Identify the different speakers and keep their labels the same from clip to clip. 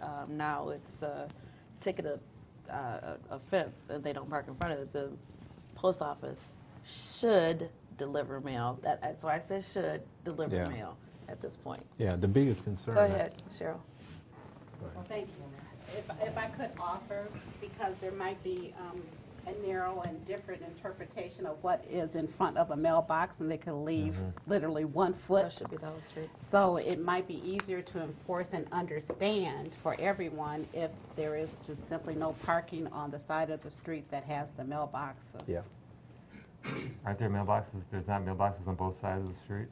Speaker 1: um, now it's a ticketed uh, offense and they don't park in front of it, the post office should deliver mail. That, that's why I said should deliver
Speaker 2: Yeah.
Speaker 1: mail at this point.
Speaker 2: Yeah, the biggest concern.
Speaker 1: Go
Speaker 2: I-
Speaker 1: ahead, Cheryl.
Speaker 3: Well, thank you. If, if I could offer, because there might be um, a narrow and different interpretation of what is in front of a mailbox, and they could leave literally one
Speaker 1: So it
Speaker 3: foot.
Speaker 1: should be the whole street.
Speaker 3: So it might be easier to enforce and understand for everyone if there is just simply no parking on the side of the street that has the mailboxes.
Speaker 2: Yeah.
Speaker 4: Aren't there mailboxes? There's not mailboxes on both sides of the street?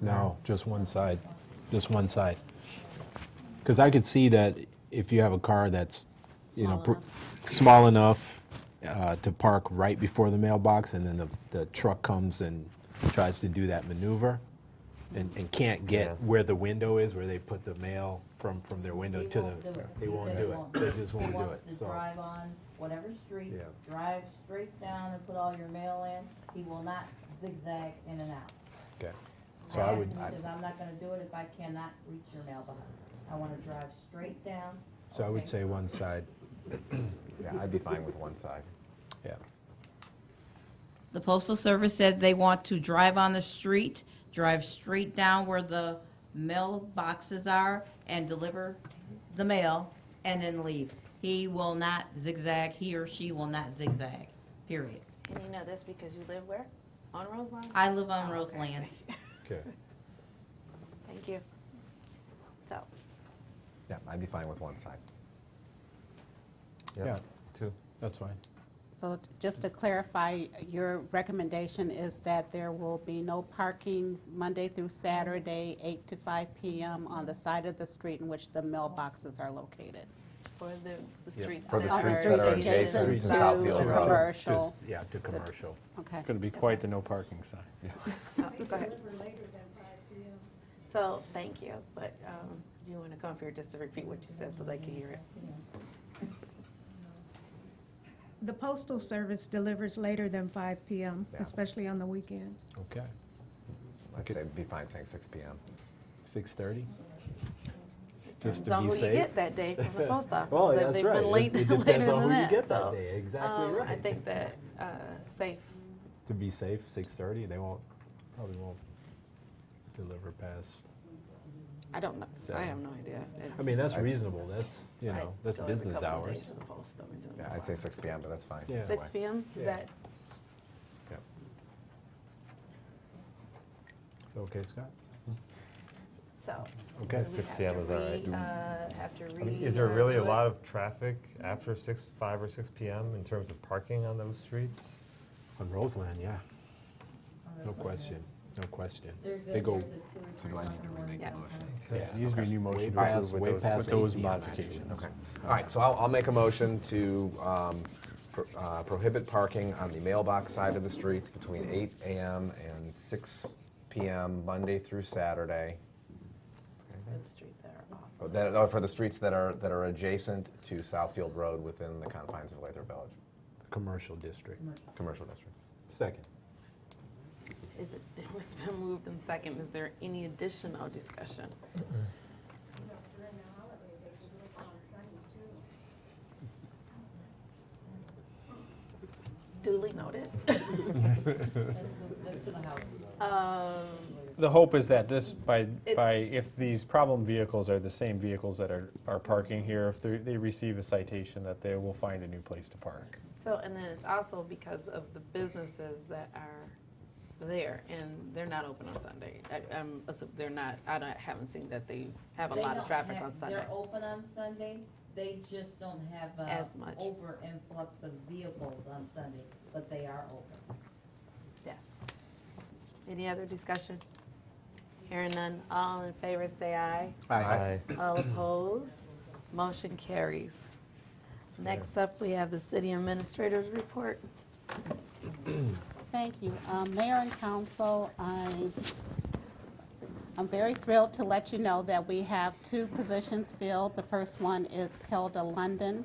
Speaker 2: No, just one side, just one side. Because I could see that if you have a car that's, you know,
Speaker 1: Small
Speaker 2: pr- small enough uh, to park right before the mailbox, and then the, the truck comes and tries to do that maneuver, and, and can't get
Speaker 4: Yeah.
Speaker 2: where the window is, where they put the mail from, from their window
Speaker 5: They
Speaker 2: to
Speaker 5: won't do
Speaker 2: the.
Speaker 5: it.
Speaker 2: They
Speaker 5: He
Speaker 2: won't
Speaker 5: said
Speaker 2: do it. They just
Speaker 5: He
Speaker 2: won't do
Speaker 5: wants
Speaker 2: it.
Speaker 5: to
Speaker 2: So
Speaker 5: drive on whatever street,
Speaker 2: Yeah.
Speaker 5: drive straight down and put all your mail in. He will not zigzag in and out.
Speaker 2: okay. So I
Speaker 5: asked
Speaker 2: would.
Speaker 5: him,
Speaker 2: I-
Speaker 5: He says, I'm not gonna do it if I cannot reach your mailbox. I wanna drive straight down.
Speaker 2: So I would say one side.
Speaker 6: Yeah, I'd be fine with one side.
Speaker 2: Yeah.
Speaker 5: The postal service said they want to drive on the street, drive straight down where the mailboxes are and deliver the mail and then leave. He will not zigzag, he or she will not zigzag, period.
Speaker 1: And you know this because you live where? On Roseland?
Speaker 5: I live on Roseland.
Speaker 2: Okay.
Speaker 1: Thank you. So,
Speaker 6: Yeah, I'd be fine with one side.
Speaker 2: Yeah.
Speaker 4: Two.
Speaker 2: That's fine.
Speaker 3: So just to clarify, your recommendation is that there will be no parking Monday through Saturday, 8 to 5 p.m. on the side of the street in which the mailboxes are located?
Speaker 1: for the, the streets.
Speaker 6: For the
Speaker 1: that are-
Speaker 6: streets that are adjacent
Speaker 2: Streets
Speaker 3: Adjacent
Speaker 2: in
Speaker 3: to
Speaker 6: Southfield
Speaker 3: the
Speaker 6: Road.
Speaker 3: commercial,
Speaker 2: Just- Yeah, to commercial.
Speaker 3: okay.
Speaker 7: Going to be quite the no parking sign.
Speaker 1: Oh, Go ahead.
Speaker 8: deliver later than five PM.
Speaker 1: So, thank you, but um, you want to come up here just to repeat what you said so they can hear it.
Speaker 8: The postal service delivers later than five PM,
Speaker 6: Yeah.
Speaker 8: especially on the weekends.
Speaker 2: Okay.
Speaker 6: I'd
Speaker 2: Okay.
Speaker 6: say be fine saying six PM.
Speaker 2: 6:30? Just
Speaker 1: Depends
Speaker 2: to
Speaker 1: on
Speaker 2: be
Speaker 1: who you
Speaker 2: safe?
Speaker 1: get that day from the post office.
Speaker 2: Well,
Speaker 1: They-
Speaker 2: that's
Speaker 1: they've
Speaker 2: right.
Speaker 1: been
Speaker 2: It-
Speaker 1: late-
Speaker 2: it depends
Speaker 1: later
Speaker 2: on
Speaker 1: than
Speaker 2: who you
Speaker 1: that,
Speaker 2: get that
Speaker 1: so,
Speaker 2: day. Exactly
Speaker 1: um, I
Speaker 2: right.
Speaker 1: think that uh, safe,
Speaker 2: To be safe, 6:30, they won't, probably won't deliver past.
Speaker 1: I don't know, I have
Speaker 2: Seven.
Speaker 1: no idea.
Speaker 2: I mean,
Speaker 1: It's-
Speaker 2: that's reasonable, that's, you
Speaker 1: I
Speaker 2: know, that's
Speaker 1: go every
Speaker 2: business
Speaker 1: couple of days
Speaker 2: hours.
Speaker 1: to the post, I've been doing
Speaker 6: Yeah,
Speaker 1: that
Speaker 6: I'd
Speaker 1: a
Speaker 6: say
Speaker 1: while.
Speaker 6: six PM, but that's fine.
Speaker 2: Yeah.
Speaker 6: either
Speaker 1: Six
Speaker 6: way.
Speaker 1: PM, is
Speaker 2: Yeah.
Speaker 1: that,
Speaker 6: Yep.
Speaker 2: So, okay, Scott?
Speaker 1: so.
Speaker 2: Okay.
Speaker 1: do we
Speaker 4: 6
Speaker 1: have
Speaker 4: p.m.
Speaker 1: to
Speaker 4: is all right.
Speaker 1: re- uh, Have to
Speaker 4: I mean,
Speaker 1: read.
Speaker 4: is there
Speaker 1: or
Speaker 4: really
Speaker 1: do
Speaker 4: a
Speaker 1: it?
Speaker 4: lot of traffic after 6, 5 or 6 p.m. in terms of parking on those streets?
Speaker 2: On Roseland, yeah, no question, no question. They go,
Speaker 5: So do I need to remake
Speaker 1: the Yes. motion?
Speaker 2: yeah,
Speaker 7: Needs to be a new
Speaker 2: way
Speaker 7: motion to
Speaker 2: past,
Speaker 7: approve with
Speaker 2: way
Speaker 7: those-
Speaker 2: past
Speaker 7: with those
Speaker 2: 8 p.m. actually.
Speaker 7: modifications.
Speaker 6: Okay. All right, so I'll, I'll make a motion to um, pro- uh, prohibit parking on the mailbox side of the streets between eight AM and six PM, Monday through Saturday.
Speaker 1: For The streets that are off.
Speaker 6: Oh, That, oh, for the streets that are, that are adjacent to Southfield Road within the confines of Lather Village,
Speaker 2: Commercial district.
Speaker 6: commercial district.
Speaker 2: Second.
Speaker 1: Is it, it's been moved in second, is there any additional discussion?
Speaker 8: During the holiday, they deliver on Sunday too.
Speaker 1: Duly noted.
Speaker 5: Let's do the house.
Speaker 1: Um,
Speaker 7: The hope is that this, by, by,
Speaker 1: It's-
Speaker 7: if these problem vehicles are the same vehicles that are, are parking here, if they, they receive a citation, that they will find a new place to park.
Speaker 1: So, and then it's also because of the businesses that are there, and they're not open on Sunday. I- I'm, assu- they're not, I don't, haven't seen that they have a
Speaker 5: They
Speaker 1: lot of
Speaker 5: don't
Speaker 1: traffic
Speaker 5: have-
Speaker 1: on Sunday.
Speaker 5: They're open on Sunday, they just don't have. uh,
Speaker 1: As much.
Speaker 5: Over influx of vehicles on Sunday, but they are open.
Speaker 1: Yes. Any other discussion? Hearing none, all in favor say aye.
Speaker 4: Aye.
Speaker 1: All opposed? Motion carries. Next up, we have the city administrator's report.
Speaker 3: Thank you. Um, Mayor and council, I, I'm very thrilled to let you know that we have two positions filled. The first one is Kelda London.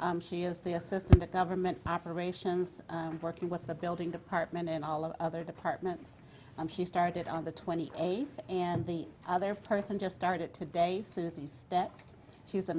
Speaker 3: Um, She is the Assistant to Government Operations, um, working with the Building Department and all of other departments. Um, She started on the 28th, and the other person just started today, Susie Steck. She's the